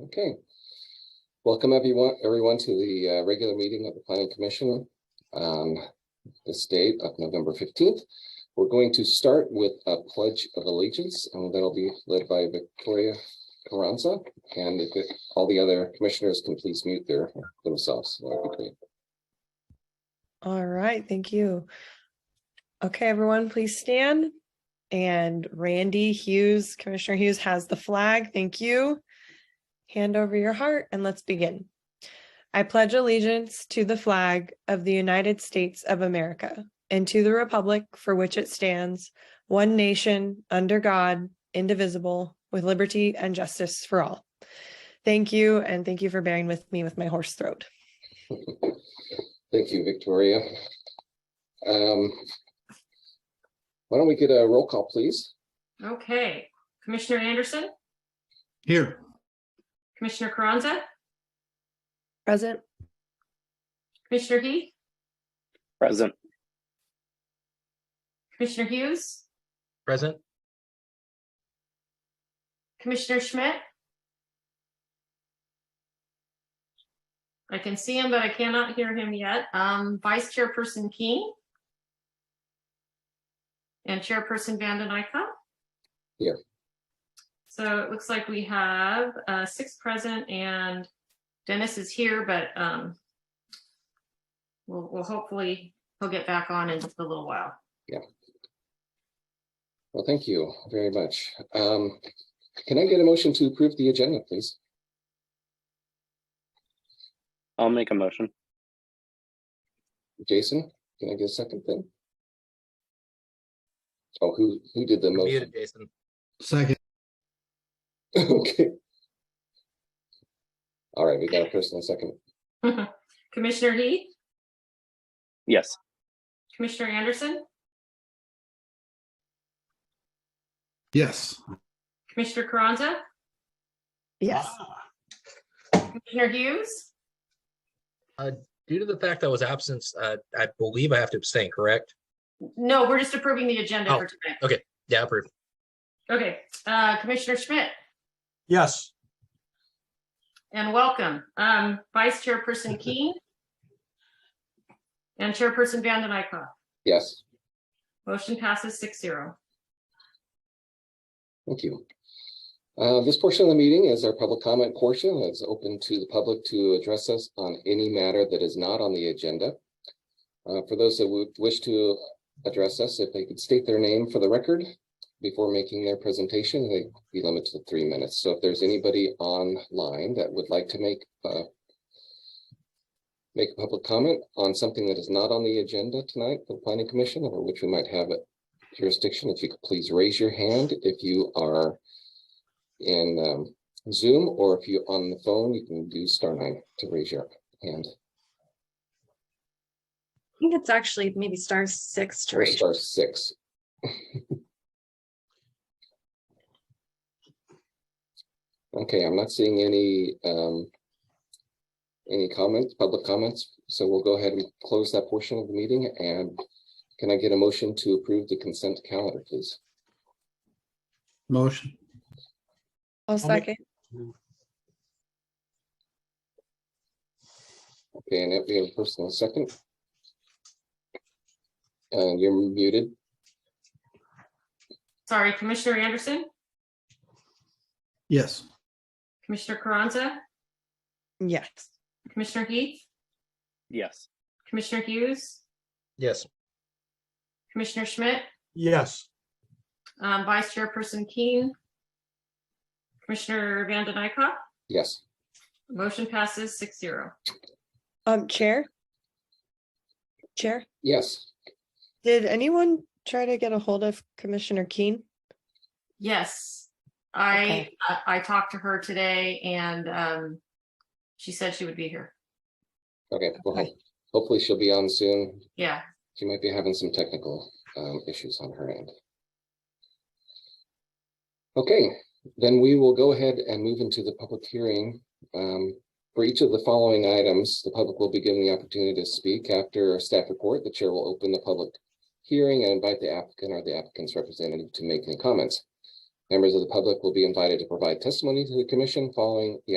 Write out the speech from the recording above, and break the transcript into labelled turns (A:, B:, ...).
A: Okay. Welcome everyone, everyone to the uh, regular meeting of the planning commission on this date of November fifteenth. We're going to start with a pledge of allegiance and that'll be led by Victoria Carranza. And if it- all the other commissioners can please mute their themselves. that would be great.
B: All right, thank you. Okay, everyone, please stand. And Randy Hughes, Commissioner Hughes has the flag. Thank you. Hand over your heart and let's begin. I pledge allegiance to the flag of the United States of America and to the republic for which it stands, one nation, under God, indivisible, with liberty and justice for all. Thank you, and thank you for bearing with me with my hoarse throat.
A: Thank you, Victoria. Um, Why don't we get a roll call, please?
C: Okay, Commissioner Anderson,
D: Here,
C: Commissioner Carranza,
B: Present.
C: Commissioner Heath,
E: Present.
C: Commissioner Hughes,
F: Present,
C: Commissioner Schmidt. I can see him, but I cannot hear him yet. Um, Vice Chairperson King. And Chairperson Vanden Eyck.
A: Here.
C: So it looks like we have uh six present and Dennis is here, but um. We'll, we'll hopefully, he'll get back on in just a little while.
A: Well, thank you very much. Um, Can I get a motion to approve the agenda, please?
E: I'll make a motion.
A: Jason, can I get a second then? Oh, who, who did the
F: You're muted,
A: motion?
F: Jason.
D: second,
A: Okay. All right, we got a first and a second.
C: Commissioner Heath,
E: Yes.
C: Commissioner Anderson,
D: yes.
C: Commissioner Carranza,
B: Yes.
C: Commissioner Hughes,
F: Due to the fact I was absent, uh, I believe I have to abstain, correct?
C: No, we're just approving the agenda
F: Oh.
C: for tonight.
F: Yeah, approved.
C: Okay, uh, Commissioner Schmidt,
G: Yes,
C: and welcome. Um, Vice Chairperson Keen. And Chairperson Vanden Eyck.
A: Yes,
C: Motion passes six zero.
A: thank you. Uh, This portion of the meeting is our public comment portion. It's open to the public to address us on any matter that is not on the agenda. Uh, For those that would wish to address us, if they could state their name for the record before making their presentation, they'd be limited to three minutes. So if there's anybody online that would like to make uh, make a public comment on something that is not on the agenda tonight, for the planning commission, over which we might have jurisdiction, if you could please raise your hand if you are in um, Zoom, or if you're on the phone, you can do star nine to raise your hand.
H: I think it's actually maybe star six to
A: Or
H: raise.
A: star six. Okay, I'm not seeing any, um, any comments, public comments, so we'll go ahead and close that portion of the meeting and can I get a motion to approve the consent calendar, please?
D: Motion,
B: I'll
G: I'll make-
B: second.
A: Okay, and we have a personal second. And you're muted.
C: Sorry, Commissioner Anderson,
D: yes.
C: Commissioner Carranza,
B: Yes.
C: Commissioner Heath,
E: Yes.
C: Commissioner Hughes,
F: Yes.
C: Commissioner Schmidt,
G: yes.
C: um, Vice Chairperson Keen. Commissioner Vanden Eyck.
A: Yes,
C: Motion passes six zero.
B: Um, Chair? Chair,
A: yes,
B: did anyone try to get a hold of Commissioner Keen?
C: Yes, I,
B: Okay.
C: I- I talked to her today and um, she said she would be here.
A: okay. well,
B: Okay.
A: Hopefully she'll be on soon.
C: Yeah,
A: She might be having some technical um, issues on her end. Okay, then we will go ahead and move into the public hearing. Um, For each of the following items, the public will be given the opportunity to speak after a staff report. The chair will open the public hearing and invite the applicant or the applicant's representative to make any comments. Members of the public will be invited to provide testimony to the commission following the